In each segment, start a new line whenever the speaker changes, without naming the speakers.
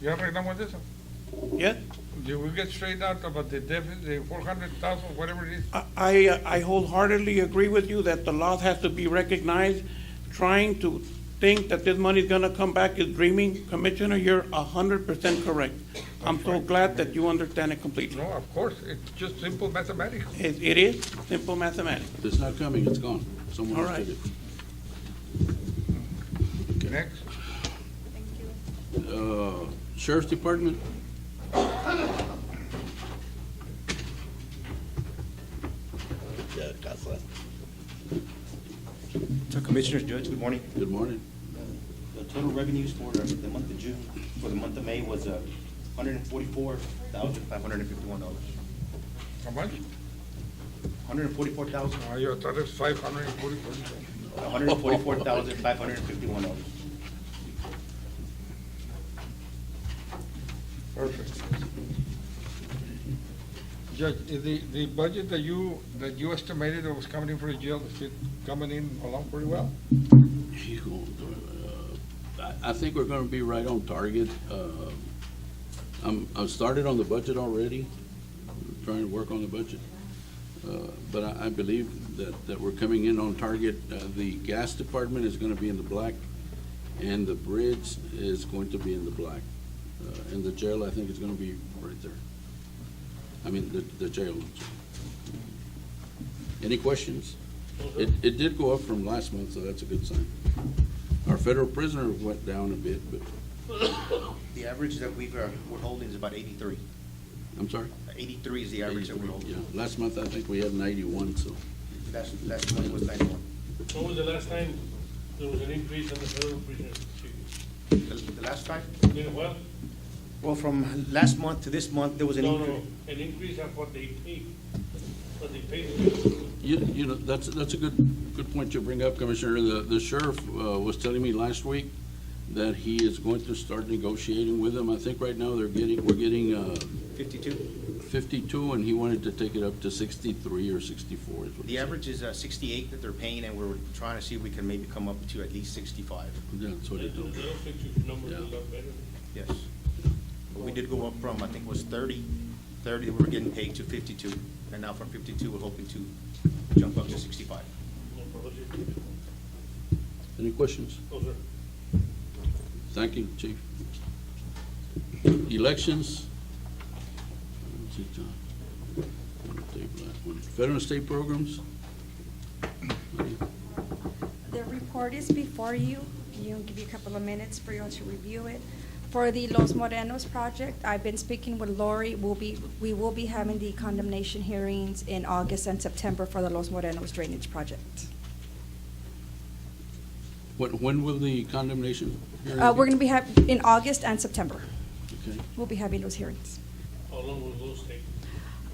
Ya arreglamos eso.
Yeah,
Did we get straight out about the deficit, the four hundred thousand, whatever it is?
I- I, I wholeheartedly agree with you that the loss has to be recognized. Trying to think that this money's gonna come back is dreaming. Commissioner, you're a hundred percent correct. I'm so glad that you understand it completely.
No, of course, it's just simple mathematics.
It, it is simple mathematics.
If It's not coming, it's gone. Someone
All
else
right.
did it.
Next.
Uh, Sheriff's Department,
So Commissioners, Judge, good morning.
good morning.
The total revenues for the month of June, for the month of May was uh, hundred and forty-four thousand, five hundred and fifty-one dollars.
How much?
Hundred and forty-four thousand,
Ah, yo, thought it's five hundred and forty percent.
hundred and forty-four thousand, five hundred and fifty-one dollars.
Perfect. Judge, is the, the budget that you, that you estimated that was coming in for the jail, is it coming in along pretty well?
Hijo, uh, I I think we're going to be right on target. Uh, I'm, I've started on the budget already, trying to work on the budget. Uh, But I, I believe that, that we're coming in on target. Uh, The gas department is going to be in the black, and the bridge is going to be in the black. Uh, And the jail, I think, is going to be right there. I mean, the, the jail. Any questions? It, it did go up from last month, so that's a good sign. Our federal prisoner went down a bit, but,
The average that we've, uh, we're holding is about eighty-three.
I'm sorry.
Eighty-three is the average that we're
Yeah,
holding.
last month I think we had ninety-one, so.
Last, last month was ninety-one.
When was the last time there was an increase in the federal prisoners?
The the last time?
In a while?
Well, from last month to this month, there was an
No,
increase.
no, an increase of what they pay, what they pay. the-
You, you know, that's, that's a good, good point you bring up, Commissioner. The, the sheriff, uh, was telling me last week that he is going to start negotiating with them. I think right now they're getting, we're getting, uh,
Fifty-two.
fifty-two, and he wanted to take it up to sixty-three or sixty-four is what he
The
said.
average is uh, sixty-eight that they're paying, and we're trying to see if we can maybe come up to at least sixty-five.
Yeah, That's what he told me.
They'll fix your numbers a
Yeah.
lot better.
Yes. But we did go up from, I think it was 30, 30 that we were getting paid to 52, and now from 52, we're hoping to jump up to 65.
No problem.
Any questions?
No, sir.
Thank you, Chief. Elections. Let's see, John. Take that one. Veteran state programs.
The report is before you. You'll give you a couple of minutes for you all to review it. For the Los Morenos project, I've been speaking with Lori. We'll be, we will be having the condemnation hearings in August and September for the Los Morenos drainage project.
When, when will the condemnation? hearing
Uh,
be?
we're gonna be have, in August and September,
Okay.
we'll be having those hearings.
How long will those take?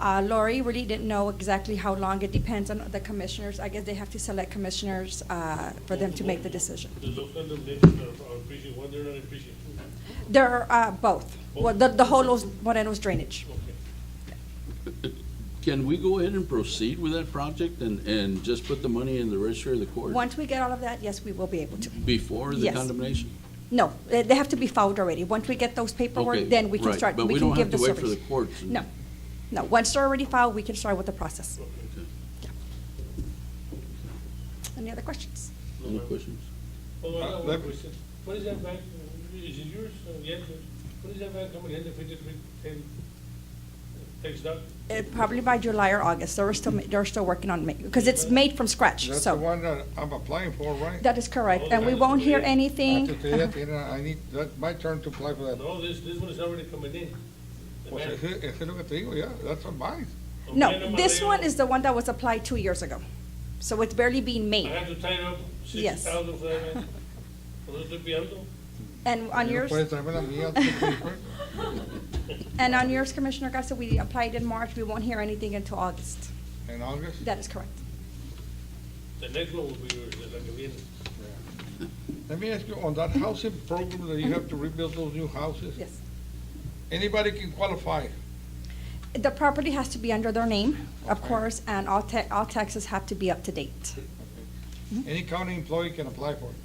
Uh, Lori really didn't know exactly how long. It depends on the commissioners. I guess they have to select commissioners, uh, for them to make the decision.
The local condemnation are are increasing, one, they're not increasing.
There are, uh, both. Well, the, the whole Los Morenos drainage.
Okay.
Can we go ahead and proceed with that project and, and just put the money in the register of the court?
Once we get all of that, yes, we will be able to.
Before the
Yes.
condemnation?
No, they they have to be filed already. Once we get those
Okay,
paperwork, then we can
right,
start,
but we
we can
don't
give the
have to wait for
service.
the courts and-
No, no, once they're already filed, we can start with the process.
Okay.
Any other questions?
Any questions?
Oh, I
Uh,
have
let-
one question. What is that bag, uh, is it yours? Uh, Yes, sir. What is that bag coming in, the fifty-three, ten, takes that?
Uh, Probably by July or August, they're still, they're still working on it, because it's made from scratch,
That's the
so.
one that I'm applying for, right?
That is correct,
Oh,
and we
that's
won't hear
great.
I have
anything.
to tell you, Tina, I need, that's my turn to apply for that.
No, this, this one is already coming in. The
Pues
bag.
ese, ese es lo que te digo, ya, that's on mine.
No, this one is the one that was applied two years ago, so it's barely being
I
made.
have to tie up sixty
Yes.
thousand for that man. Por eso estoy pillando.
And
Y
on
no
yours,
Puedes traerme la mía. tú, pues.
and on yours, Commissioner Garcia, we applied in March, we won't hear anything until August.
In August?
That is correct.
The next one will be yours, la que viene.
Let me ask you, on that housing program that you have to rebuild those new houses?
Yes. Mm-hmm.
Anybody can qualify?
The property has to be under their name, of
Okay.
course, and all ta, all taxes have to be up to date.
Any county employee can apply for it?